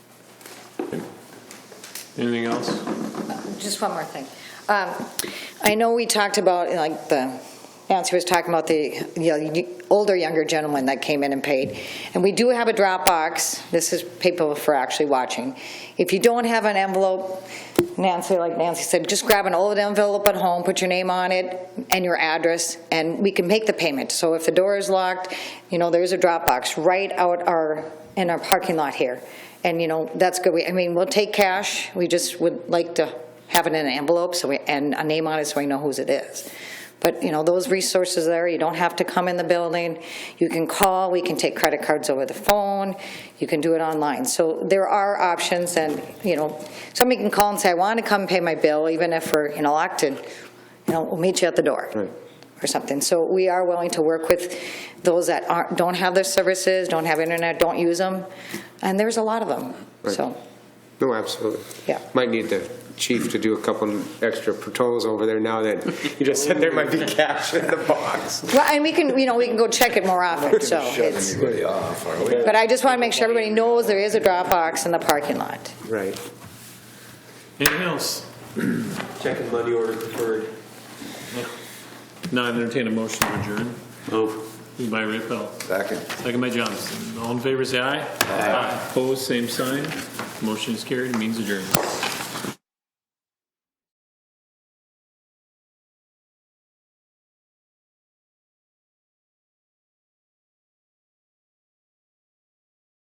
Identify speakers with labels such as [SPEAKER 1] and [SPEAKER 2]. [SPEAKER 1] Anything else?
[SPEAKER 2] Just one more thing. Um, I know we talked about, like, the, Nancy was talking about the, you know, older, younger gentleman that came in and paid. And we do have a Dropbox. This is people for actually watching. If you don't have an envelope, Nancy, like Nancy said, just grab an old envelope at home, put your name on it and your address, and we can make the payment. So if the door is locked, you know, there's a Dropbox right out our, in our parking lot here. And, you know, that's good. We- I mean, we'll take cash. We just would like to have it in an envelope so we, and a name on it so we know whose it is. But, you know, those resources there, you don't have to come in the building. You can call, we can take credit cards over the phone, you can do it online. So there are options and, you know, somebody can call and say, I want to come pay my bill, even if we're in elected, you know, we'll meet you at the door.
[SPEAKER 1] Right.
[SPEAKER 2] Or something. So we are willing to work with those that aren't, don't have their services, don't have internet, don't use them. And there's a lot of them,
[SPEAKER 3] Right.
[SPEAKER 2] so,
[SPEAKER 3] No, absolutely.
[SPEAKER 2] Yeah.
[SPEAKER 3] Might need the chief to do a couple extra patrols over there now that you just said there might be cash in the box.
[SPEAKER 2] well, and we can, you know, we can go check it more often, so it's.
[SPEAKER 4] anybody off, are we?
[SPEAKER 2] But I just want to make sure everybody knows there is a Dropbox in the parking lot.
[SPEAKER 3] Right.
[SPEAKER 1] Anything else?
[SPEAKER 5] Checking money order preferred.
[SPEAKER 1] Now I entertain a motion to adjourn. Move. Moved by Raybell,
[SPEAKER 4] Second.
[SPEAKER 1] second by Johnson. All in favor, say aye. Aye. Opposed, same sign. Motion is carried, means adjourned.